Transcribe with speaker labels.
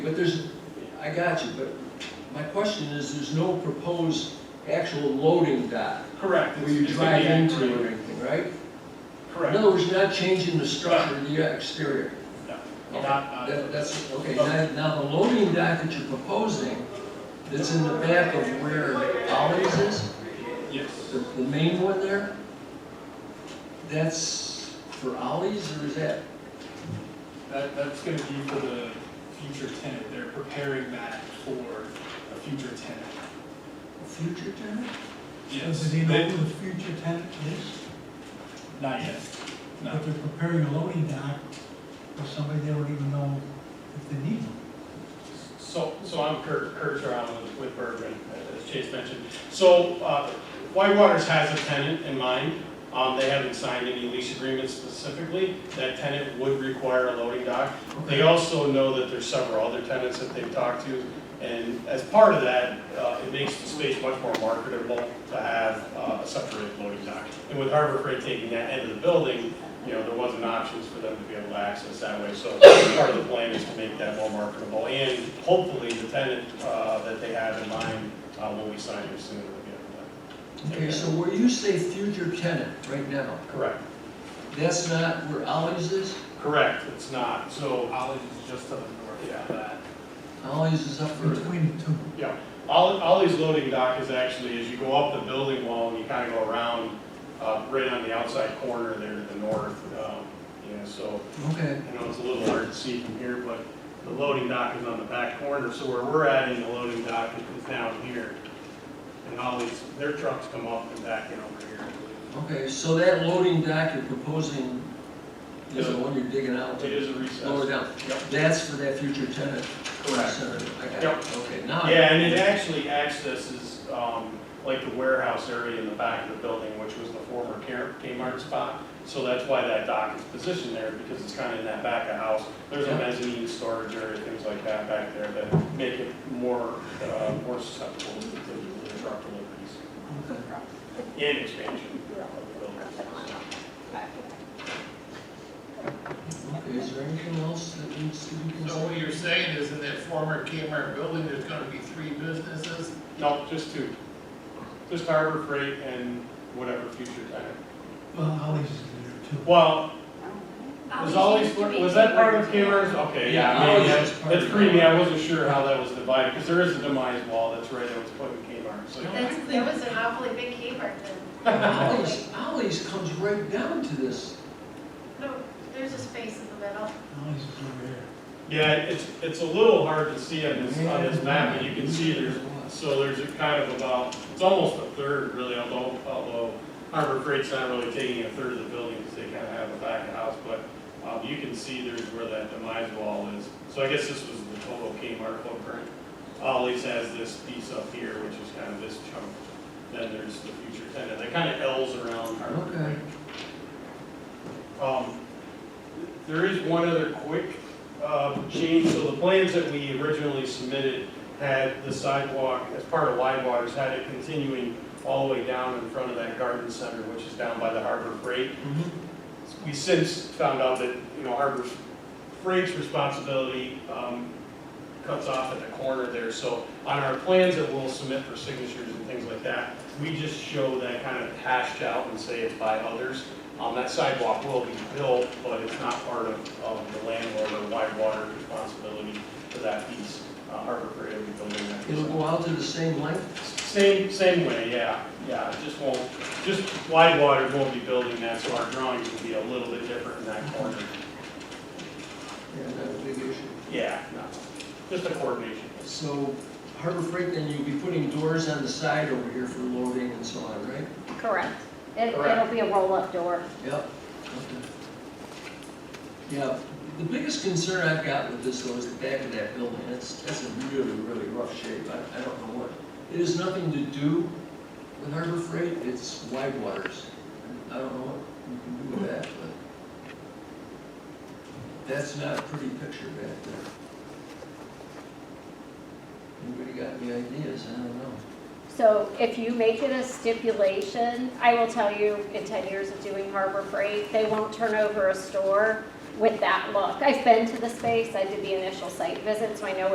Speaker 1: But there's, I got you, but my question is, there's no proposed actual loading dock
Speaker 2: Correct.
Speaker 1: where you
Speaker 2: It's- it's gonna
Speaker 1: drive
Speaker 2: be
Speaker 1: into
Speaker 2: anchored.
Speaker 1: or anything, right? In
Speaker 2: Correct.
Speaker 1: other words, you're not changing the structure of the uh, exterior.
Speaker 2: No.
Speaker 1: Okay,
Speaker 2: Not-
Speaker 1: that- That's, okay,
Speaker 2: Okay.
Speaker 1: now, now the loading dock that you're proposing, that's in the back of where Ollie's is,
Speaker 2: Yes.
Speaker 1: the, the main one there? That's for Ollie's or is that,
Speaker 2: That, that's gonna be for the future tenant. They're preparing that for a future tenant.
Speaker 1: a future tenant?
Speaker 2: Yes.
Speaker 3: Does he know
Speaker 2: They-
Speaker 3: who the future tenant is?
Speaker 2: Not yet. No.
Speaker 3: But they're preparing a loading dock for somebody they don't even know if they need one.
Speaker 2: So, so I'm Kurt, Kurt Brown with- with Bergman, as Chase mentioned. So, uh, Whitewaters has a tenant in mind, um, they haven't signed any lease agreements specifically. That tenant would require a loading dock. They also know that there's several other tenants that they've talked to, and as part of that, uh, it makes the space much more marketable to have uh, a separated loading dock. And with Harbor Freight taking that end of the building, you know, there wasn't options for them to be able to access that way. So part of the plan is to make that more marketable, and hopefully the tenant uh, that they have in mind uh, when we sign it sooner than later.
Speaker 1: Okay, so where you say future tenant right now,
Speaker 2: Correct,
Speaker 1: that's not where Ollie's is?
Speaker 2: correct, it's not, so,
Speaker 4: Ollie is just to the north
Speaker 2: Yeah.
Speaker 4: of that.
Speaker 1: Ollie's is up for,
Speaker 3: Between the two.
Speaker 2: yeah. Ollie- Ollie's loading dock is actually, as you go up the building wall and you kind of go around, uh, right on the outside corner there to the north. um, Yeah, so
Speaker 1: okay.
Speaker 2: I know it's a little hard to see from here, but the loading dock is on the back corner, so where we're adding the loading dock is down here. And all these, their trucks come up and back in over here.
Speaker 1: Okay, so that loading dock you're proposing is the one you're digging out?
Speaker 2: It is a recess.
Speaker 1: Lower down?
Speaker 2: Yep.
Speaker 1: That's for that future tenant? center. I got it.
Speaker 2: Yep.
Speaker 1: Okay, now. I-
Speaker 2: Yeah, and it actually accesses, um, like the warehouse area in the back of the building, which was the former Kmart Kmart spot. So that's why that dock is positioned there, because it's kind of in that back of house. There's a
Speaker 1: Yeah.
Speaker 2: mezzanine storage area, things like that back there that make it more, uh, more susceptible to the truck deliveries.
Speaker 1: Okay.
Speaker 2: And expansion.
Speaker 1: Okay, is there anything else that needs to be
Speaker 5: So what
Speaker 1: considered?
Speaker 5: you're saying is in that former Kmart building, there's gonna be three businesses?
Speaker 2: No, just two. Just Harbor Freight and whatever future tenant.
Speaker 3: Well, Ollie's is there too.
Speaker 2: Well, was always, was that part of Kmart's? Okay, yeah,
Speaker 1: Yeah,
Speaker 2: maybe
Speaker 1: Ollie's
Speaker 2: that's,
Speaker 1: is part
Speaker 2: that's
Speaker 1: of
Speaker 2: pretty,
Speaker 1: Kmart.
Speaker 2: I wasn't sure how that was divided, because there is a demise wall that's right there, it's put in Kmart, so.
Speaker 6: That's, that was an awfully big Kmart then.
Speaker 1: Ollie's, Ollie's comes right down to this.
Speaker 6: No, there's a space in the middle.
Speaker 3: Ollie's is over here.
Speaker 2: Yeah, it's, it's a little hard to see on this, on this map, but you can see there's, so there's a kind of about, it's almost a third really, although, although Harbor Freight's not really taking a third of the building, because they kind of have a back of house, but, um, you can see there's where that demise wall is. So I guess this was the total Kmart footprint. Ollie's has this piece up here, which is kind of this chunk, then there's the future tenant, that kind of L's around Harbor
Speaker 1: Okay.
Speaker 2: Freight. Um, there is one other quick uh, change, so the plans that we originally submitted had the sidewalk, as part of Widewaters, had it continuing all the way down in front of that garden center, which is down by the Harbor Freight.
Speaker 1: Mm-hmm.
Speaker 2: We since found out that, you know, Harbor Freight's responsibility um, cuts off at the corner there, so on our plans that we'll submit for signatures and things like that, we just show that kind of hashed out and say it's by others. Um, that sidewalk will be built, but it's not part of, of the landlord or wide water responsibility for that piece. Uh, Harbor Freight will be building that.
Speaker 1: It'll go out to the same length?
Speaker 2: Same, same way, yeah, yeah, it just won't, just wide water won't be building that, so our drawings will be a little bit different in that corner.
Speaker 1: Yeah, that's a big issue.
Speaker 2: Yeah, no, just a coordination.
Speaker 1: So Harbor Freight, then you'll be putting doors on the side over here for loading and so on, right?
Speaker 7: Correct. It,
Speaker 2: Correct.
Speaker 7: it'll be a roll-up door.
Speaker 1: Yep. Okay. Yeah, the biggest concern I've got with this though is the back of that building, that's, that's in really, really rough shape, I, I don't know what. It has nothing to do with Harbor Freight, it's wide waters. I don't know what you can do with that, but that's not a pretty picture back there. Anybody got any ideas? I don't know.
Speaker 7: So if you make it a stipulation, I will tell you, in 10 years of doing Harbor Freight, they won't turn over a store with that look. I've been to the space, I did the initial site visit, so I know